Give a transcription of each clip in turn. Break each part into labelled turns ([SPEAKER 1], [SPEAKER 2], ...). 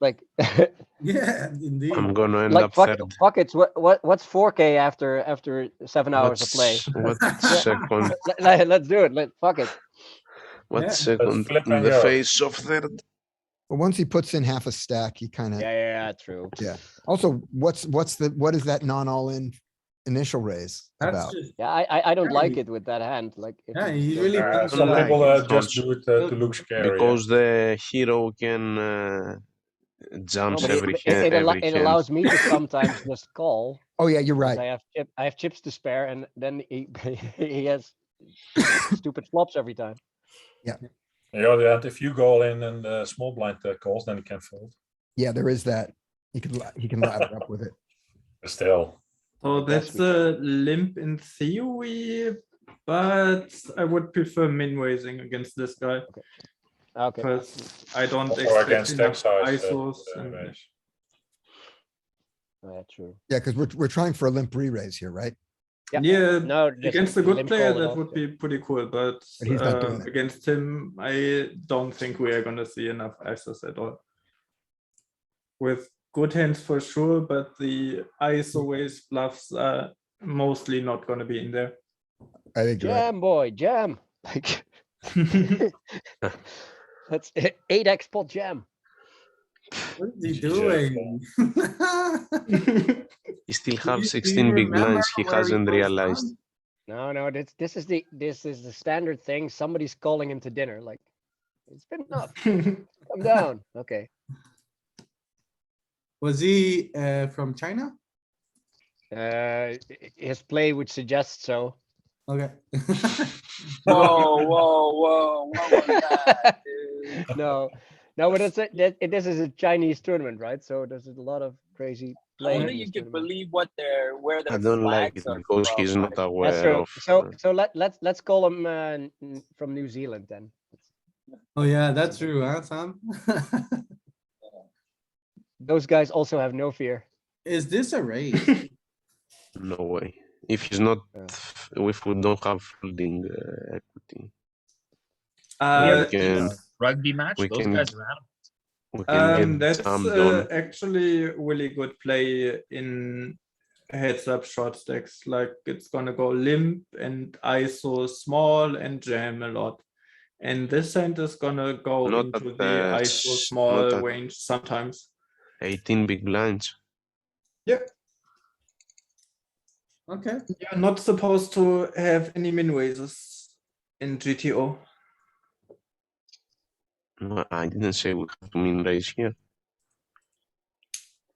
[SPEAKER 1] Like,
[SPEAKER 2] Yeah, indeed.
[SPEAKER 3] I'm gonna end
[SPEAKER 1] like
[SPEAKER 3] up
[SPEAKER 1] fuck,
[SPEAKER 3] third.
[SPEAKER 1] fuck it. What, what, what's 4K after after seven hours of play?
[SPEAKER 3] What's- What's second?
[SPEAKER 1] Let, let, let's do it. Let fuck it.
[SPEAKER 3] What's
[SPEAKER 2] Yeah.
[SPEAKER 3] second?
[SPEAKER 4] flip
[SPEAKER 3] In
[SPEAKER 4] and
[SPEAKER 3] the
[SPEAKER 4] go.
[SPEAKER 3] face of third.
[SPEAKER 5] But once he puts in half a stack, he kind
[SPEAKER 1] Yeah,
[SPEAKER 5] of,
[SPEAKER 1] yeah, yeah true.
[SPEAKER 5] also, what's, what's the, what is that non-all in initial raise
[SPEAKER 2] That's
[SPEAKER 5] about?
[SPEAKER 2] just,
[SPEAKER 1] Yeah, I I, I don't
[SPEAKER 2] Yeah,
[SPEAKER 1] like
[SPEAKER 2] he-
[SPEAKER 1] it with that hand. Like, if
[SPEAKER 2] yeah,
[SPEAKER 1] you-
[SPEAKER 2] he really
[SPEAKER 4] Uh,
[SPEAKER 2] comes
[SPEAKER 4] some
[SPEAKER 3] like
[SPEAKER 4] people
[SPEAKER 3] it.
[SPEAKER 4] uh, just do it uh, to look scary.
[SPEAKER 3] because the hero can uh,
[SPEAKER 1] no,
[SPEAKER 3] jumps
[SPEAKER 1] but it-
[SPEAKER 3] every
[SPEAKER 1] but it-
[SPEAKER 3] hand.
[SPEAKER 1] it allo-
[SPEAKER 3] every
[SPEAKER 1] it
[SPEAKER 3] hand.
[SPEAKER 1] allows me to sometimes just call.
[SPEAKER 5] Oh, yeah, you're
[SPEAKER 1] 'cause I
[SPEAKER 5] right.
[SPEAKER 1] have chip, I have chips to spare, and then he he has stupid flops every time.
[SPEAKER 4] yeah. You know, that if you go in and uh, small blind uh, calls, then it can fold.
[SPEAKER 5] Yeah, there is that. He could, li- he can ladder up with it.
[SPEAKER 4] But still,
[SPEAKER 6] So
[SPEAKER 1] That's
[SPEAKER 6] that's the limp in theory, but I would prefer min raising against this guy
[SPEAKER 1] Okay.
[SPEAKER 6] because I don't
[SPEAKER 4] Or
[SPEAKER 6] expect
[SPEAKER 4] against
[SPEAKER 6] enough
[SPEAKER 4] stack size, uh,
[SPEAKER 6] ISOs.
[SPEAKER 4] uh,
[SPEAKER 6] and-
[SPEAKER 4] raise.
[SPEAKER 1] Yeah, true.
[SPEAKER 5] Yeah, because we're, we're trying for a limp re-raise here, right?
[SPEAKER 1] Yeah.
[SPEAKER 6] yeah,
[SPEAKER 1] No, just
[SPEAKER 6] against a good
[SPEAKER 1] limp
[SPEAKER 6] player,
[SPEAKER 1] call it
[SPEAKER 6] that
[SPEAKER 1] off,
[SPEAKER 6] would
[SPEAKER 1] yeah.
[SPEAKER 6] be pretty cool. But,
[SPEAKER 5] But he's not doing
[SPEAKER 6] uh,
[SPEAKER 5] that.
[SPEAKER 6] against him, I don't think we are going to see enough ISOs at all. With good hands for sure, but the ISO raise bluffs are mostly not going to be in there.
[SPEAKER 5] I think you're right.
[SPEAKER 1] Jam boy, jam. Like that's eight X pot jam.
[SPEAKER 2] What is he
[SPEAKER 4] Jesus.
[SPEAKER 2] doing?
[SPEAKER 3] He still
[SPEAKER 2] Do you- do
[SPEAKER 3] have
[SPEAKER 2] you
[SPEAKER 3] 16 big
[SPEAKER 2] remember
[SPEAKER 3] blinds. He
[SPEAKER 2] where
[SPEAKER 3] hasn't
[SPEAKER 2] was
[SPEAKER 3] realized.
[SPEAKER 2] from?
[SPEAKER 1] No, no, this this is the this is the standard thing. Somebody's calling him to dinner. Like it's been enough. Come down. Okay.
[SPEAKER 2] Was he uh, from China?
[SPEAKER 1] Uh, i- his play would suggest so.
[SPEAKER 2] Okay.
[SPEAKER 7] Whoa, whoa, whoa, what was that, dude?
[SPEAKER 1] No, no, but it's a, that, it- this is a Chinese tournament, right? So there's a lot of crazy
[SPEAKER 7] I
[SPEAKER 1] playing.
[SPEAKER 7] wonder you could believe what they're where their
[SPEAKER 3] I don't like it
[SPEAKER 7] flags are
[SPEAKER 3] because
[SPEAKER 7] from,
[SPEAKER 3] he's not
[SPEAKER 7] like,
[SPEAKER 1] That's
[SPEAKER 3] aware
[SPEAKER 1] true.
[SPEAKER 3] of.
[SPEAKER 1] So
[SPEAKER 3] uh,
[SPEAKER 1] so let let's let's call him uh, n- n- from New Zealand then.
[SPEAKER 2] Oh, yeah, that's true, huh, Sam?
[SPEAKER 1] Those guys also have no fear.
[SPEAKER 2] Is this a raise?
[SPEAKER 3] No way. If he's not,
[SPEAKER 1] Yeah.
[SPEAKER 3] if we don't have folding uh, equity,
[SPEAKER 6] Uh,
[SPEAKER 3] we can,
[SPEAKER 8] Rugby match,
[SPEAKER 3] We
[SPEAKER 8] those
[SPEAKER 3] can-
[SPEAKER 8] guys are animals.
[SPEAKER 3] we can
[SPEAKER 6] Um,
[SPEAKER 3] get
[SPEAKER 6] that's
[SPEAKER 3] some
[SPEAKER 6] uh,
[SPEAKER 3] done.
[SPEAKER 6] actually really good play in heads up short stacks. Like it's gonna go limp and ISO small and jam a lot. And this hand is gonna go
[SPEAKER 3] Not
[SPEAKER 6] into
[SPEAKER 3] at
[SPEAKER 6] the
[SPEAKER 3] the
[SPEAKER 6] ISO
[SPEAKER 3] s-
[SPEAKER 6] small
[SPEAKER 3] not at-
[SPEAKER 6] range sometimes.
[SPEAKER 3] 18 big blinds.
[SPEAKER 2] Okay,
[SPEAKER 6] You're not supposed to have any min raises in GTO.
[SPEAKER 3] No, I didn't say we have to min raise here.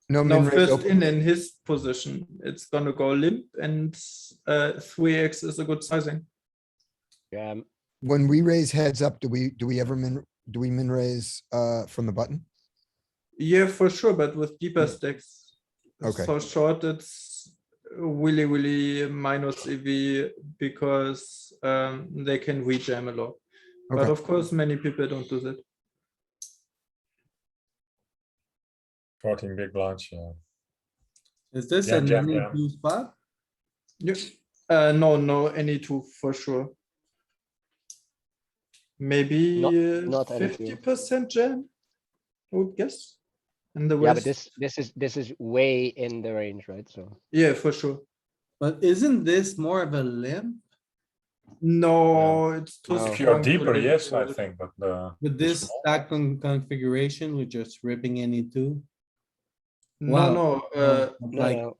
[SPEAKER 5] No
[SPEAKER 6] No,
[SPEAKER 5] min raise
[SPEAKER 6] first
[SPEAKER 5] open.
[SPEAKER 6] in in his position, it's gonna go limp and uh, three X is a good sizing.
[SPEAKER 1] Jam.
[SPEAKER 5] When we raise heads up, do we, do we ever min, do we min raise, uh, from the button?
[SPEAKER 6] Yeah, for sure, but with deeper stacks.
[SPEAKER 5] Hmm. Okay.
[SPEAKER 6] So short, it's really, really minus EV because um, they can rejam a lot. But
[SPEAKER 5] Okay.
[SPEAKER 6] of course, many people don't do that.
[SPEAKER 4] 14 big blinds. Yeah.
[SPEAKER 2] is this
[SPEAKER 4] Yeah,
[SPEAKER 2] a
[SPEAKER 4] yeah,
[SPEAKER 2] new
[SPEAKER 4] yeah.
[SPEAKER 2] blue spot?
[SPEAKER 6] Yeah. Uh, no, no, any two for sure. Maybe
[SPEAKER 1] Not-
[SPEAKER 6] uh,
[SPEAKER 1] not any two.
[SPEAKER 6] fifty percent jam, I would guess. And the
[SPEAKER 1] Yeah, but
[SPEAKER 6] rest,
[SPEAKER 1] this this is this is way in the range, right? So
[SPEAKER 6] yeah, for sure.
[SPEAKER 2] But isn't this more of a limp?
[SPEAKER 6] No, it's too
[SPEAKER 1] No.
[SPEAKER 6] strong.
[SPEAKER 4] If you're
[SPEAKER 6] to
[SPEAKER 4] deeper,
[SPEAKER 6] live
[SPEAKER 4] yes, I
[SPEAKER 6] with.
[SPEAKER 4] think. But uh,
[SPEAKER 2] With this stack con- configuration, we're just ripping any two?
[SPEAKER 6] No,
[SPEAKER 2] Wow.
[SPEAKER 6] no, uh,
[SPEAKER 1] No,
[SPEAKER 2] Like,
[SPEAKER 1] no,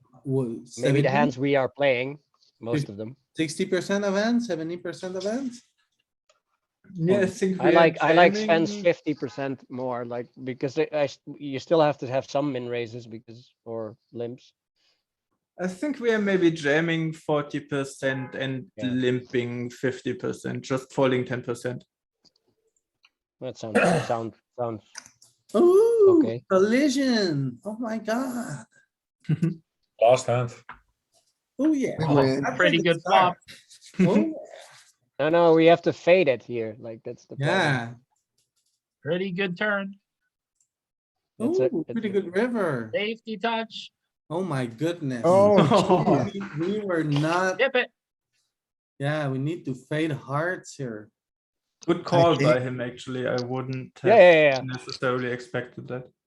[SPEAKER 1] maybe the hands we are playing, most
[SPEAKER 2] Fif-
[SPEAKER 1] of them.
[SPEAKER 2] Sixty percent of hands, seventy percent of hands?
[SPEAKER 6] yeah, I think.
[SPEAKER 1] I
[SPEAKER 6] we are
[SPEAKER 1] like I like Sven's
[SPEAKER 6] jamming-
[SPEAKER 1] fifty percent more, like because they- I s- you still have to have some min raises because or limps.
[SPEAKER 6] I think we are maybe jamming forty percent and
[SPEAKER 1] Yeah.
[SPEAKER 6] limping fifty percent, just falling ten percent.
[SPEAKER 1] That sounds sound sounds
[SPEAKER 2] Oh, Ooh,
[SPEAKER 1] Okay.
[SPEAKER 2] collision. Oh my god.
[SPEAKER 4] last hand.
[SPEAKER 2] Oh, yeah.
[SPEAKER 5] We
[SPEAKER 8] Oh,
[SPEAKER 5] win.
[SPEAKER 2] That's
[SPEAKER 8] Pretty
[SPEAKER 2] like a
[SPEAKER 8] good flop.
[SPEAKER 2] start.
[SPEAKER 1] no
[SPEAKER 2] Oh,
[SPEAKER 1] no we have to fade it here like that's the problem.
[SPEAKER 2] Yeah,
[SPEAKER 8] Pretty good turn.
[SPEAKER 1] It's a-
[SPEAKER 2] ooh,
[SPEAKER 1] it's
[SPEAKER 2] pretty
[SPEAKER 1] a-
[SPEAKER 2] good river.
[SPEAKER 8] Safety touch.
[SPEAKER 2] Oh my goodness.
[SPEAKER 5] Oh,
[SPEAKER 6] Oh.
[SPEAKER 5] geez.
[SPEAKER 2] We we were not,
[SPEAKER 8] Dip it.
[SPEAKER 2] yeah, we need to fade hearts here.
[SPEAKER 6] Good call by
[SPEAKER 5] think-
[SPEAKER 6] him, actually. I wouldn't
[SPEAKER 1] Yeah,
[SPEAKER 6] have
[SPEAKER 1] yeah, yeah, yeah.
[SPEAKER 6] necessarily expected that.